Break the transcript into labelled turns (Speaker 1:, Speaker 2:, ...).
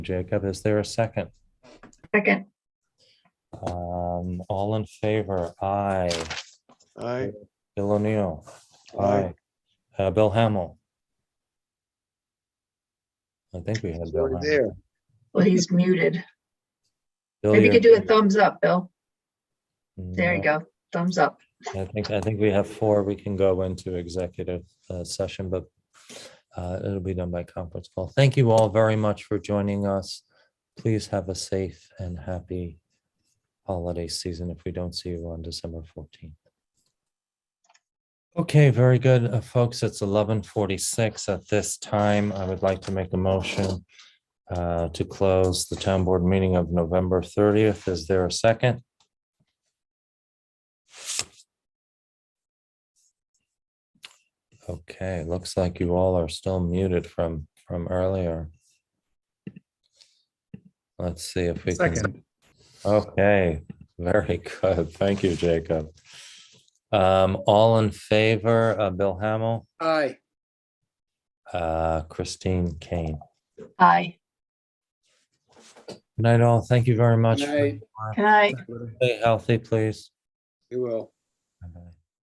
Speaker 1: Jacob. Is there a second?
Speaker 2: Second,
Speaker 1: Um, all in favor? Aye.
Speaker 3: Aye.
Speaker 1: Bill O'Neill. Uh, Bill Hamel. I think we had
Speaker 3: He's
Speaker 1: Bill.
Speaker 3: already
Speaker 1: Hamel.
Speaker 3: there.
Speaker 2: well, he's muted.
Speaker 1: Bill,
Speaker 2: Maybe you
Speaker 1: you're-
Speaker 2: could do a thumbs up, Bill. There you
Speaker 1: No,
Speaker 2: go. Thumbs up.
Speaker 1: I think, I think we have four. We can go into executive uh, session, but uh, it'll be done by conference call. Thank you all very much for joining us. Please have a safe and happy holiday season if we don't see you on December 14th. Okay, very good, uh, folks. It's 11:46 at this time. I would like to make a motion uh, to close the town board meeting of November 30th. Is there a second? Okay, looks like you all are still muted from, from earlier. Let's see if we can.
Speaker 4: Second,
Speaker 1: Okay, very good. Thank you, Jacob. Um, all in favor, uh, Bill Hamel,
Speaker 4: aye.
Speaker 1: uh, Christine Kane.
Speaker 2: Aye.
Speaker 1: Good night all. Thank you very much.
Speaker 4: Night.
Speaker 2: Good night.
Speaker 1: Stay healthy, please.
Speaker 4: You will.